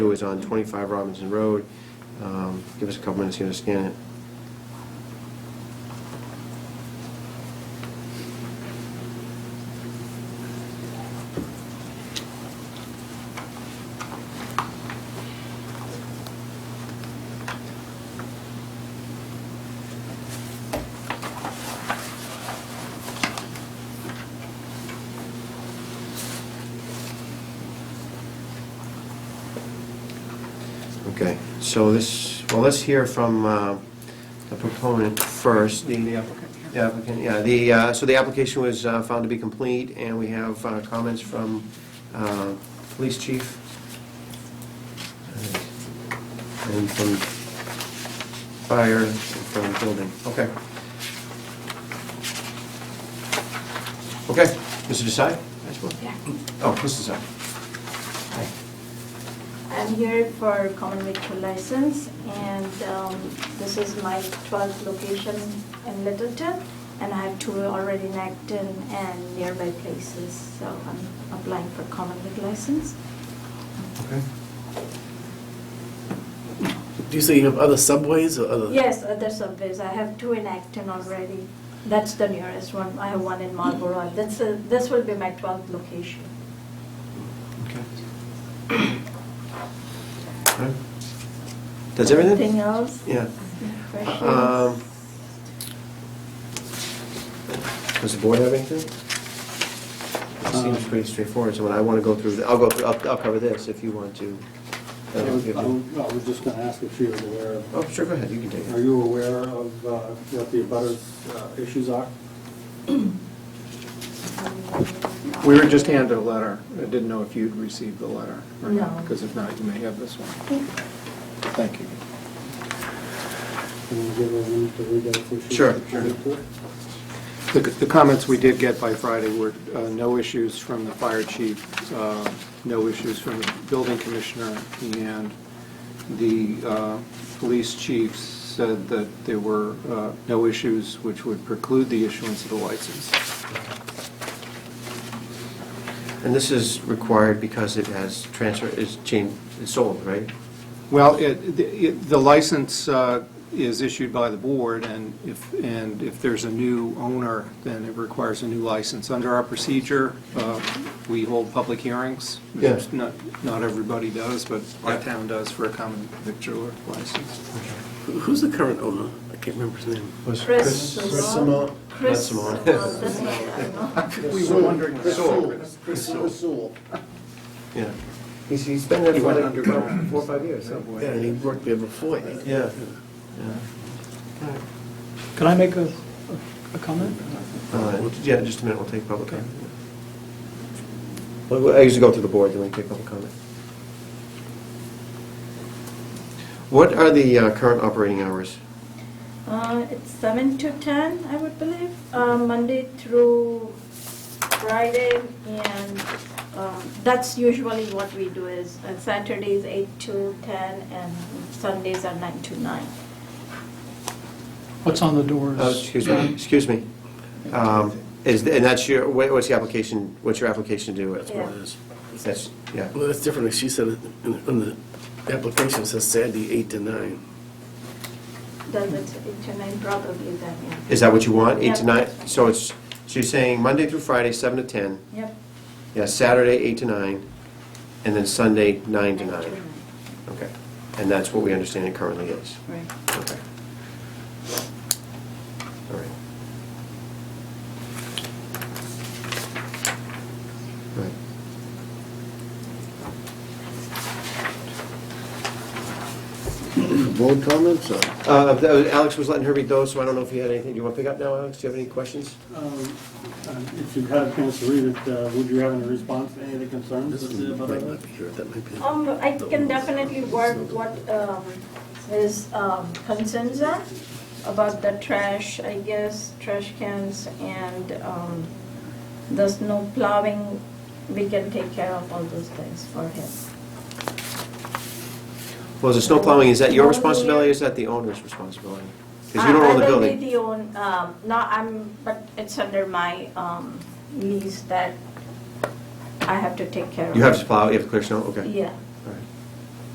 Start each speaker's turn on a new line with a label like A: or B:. A: It is on 25 Robinson Road. Um, Give us a couple minutes here to scan it. Okay, so this, well, let's hear from uh, the proponent first. The- The applicant. The applicant, yeah, the, uh, so the application was uh, found to be complete, and we have uh, comments from uh, Police Chief. And from Fire, and from Building, okay. Okay, Mr. Desai, I suppose?
B: Yeah.
A: Oh, Mr. Desai. Hi.
B: I'm here for common vehicle license, and um, this is my 12th location in Littleton, and I have two already in Acton and nearby places, so I'm applying for common vehicle license.
A: Okay.
C: Do you say you have other subways or other?
B: Yes, other subways, I have two in Acton already, that's the nearest one, I have one in Marlborough, that's, a- this will be my 12th location.
A: Okay. Does everything?
B: Anything else?
A: Yeah.
B: Any questions?
A: Um, Does the board have anything? It
D: Um,
A: seems pretty straightforward, so when I want to go through, the- I'll go, through- I'll, I'll cover this if you want to. Uh,
D: I was I was just going to ask if she was aware, of-
A: Oh, sure, go ahead, you can take
D: are
A: it.
D: you aware of uh, what the abutters uh, issues are?
E: We were just handed a letter. I didn't know if you'd received the letter or
B: No.
E: not, because if not, you may have this one. Thank you.
D: Can you give her a minute to read that so she
A: Sure,
D: can
A: sure.
D: read through it?
E: The the comments we did get by Friday were uh, no issues from the fire chief, uh, no issues from the building commissioner, and the uh, police chief said that there were uh, no issues which would preclude the issuance of the license.
A: And this is required because it has transfer, is changed, it's sold, right?
E: Well, it- the it- the license uh, is issued by the board, and if, and if there's a new owner, then it requires a new license. Under our procedure, uh, we hold public hearings.
A: Yeah.
E: Not not everybody does, but
A: Yeah.
E: our town does for a common victular license.
C: Who- Who's the current owner? I can't remember his name.
A: Was
B: Chris Simone. Chris
A: Simone.
B: Simone, that's what I know.
E: We were wondering.
D: Chris Sewell.
A: Yeah. He's, he's been there
E: He
A: for
E: went
A: like
E: underground.
A: four or five years, huh?
E: Subway.
A: Yeah, and he worked there before. Yeah. Yeah.
F: Can I make a, a comment?
A: Uh, Yeah, just a minute, we'll take public comment. Well, I usually go through the board, then we take public comment. What are the uh, current operating hours?
B: Uh, It's seven to ten, I would believe, uh, Monday through Friday, and um, that's usually what we do is uh, Saturdays eight to ten, and Sundays are nine to nine.
F: What's on the doors?
A: Oh, Excuse me, excuse me. Um, Is, and that's your, what- what's the application, what's your application do?
B: That's what it
C: is.
A: That's, yeah.
C: Well, that's different. She said, it in the- on the application, it says Saturday, 8 to 9.
B: Does it eight to nine probably then, yeah.
A: Is that what you want, eight to
B: Yeah.
A: nine? So it's, so you're saying Monday through Friday, seven to 10,
B: Yep.
A: yeah, Saturday, eight to nine, and then Sunday, nine to nine? Okay, and that's what we understand it currently is?
B: Right.
A: Okay. All right. Right.
D: Board comments or?
A: Uh, th- Alex was letting her read those, so I don't know if you had anything, do you want to pick up now, Alex? Do you have any questions?
D: Um, um, If you've had a chance to read it, uh, would you have any response to any of the concerns
C: This
D: of the
C: one might
D: abutters?
C: not be here. That might be.
B: Um, I can definitely work what, um, his, um, concerns are about the trash, I guess, trash cans and, um, the snow plowing. We can take care of all those things for him.
A: Well, the snow plowing, is that your responsibility, or is that the owner's responsibility? Because you don't
B: I-
A: own the
B: I will be
A: building.
B: the own, um, no, I'm, but it's under my, um, lease that I have to take care of.
A: You have to plow, you have to clear snow, okay.
B: Yeah,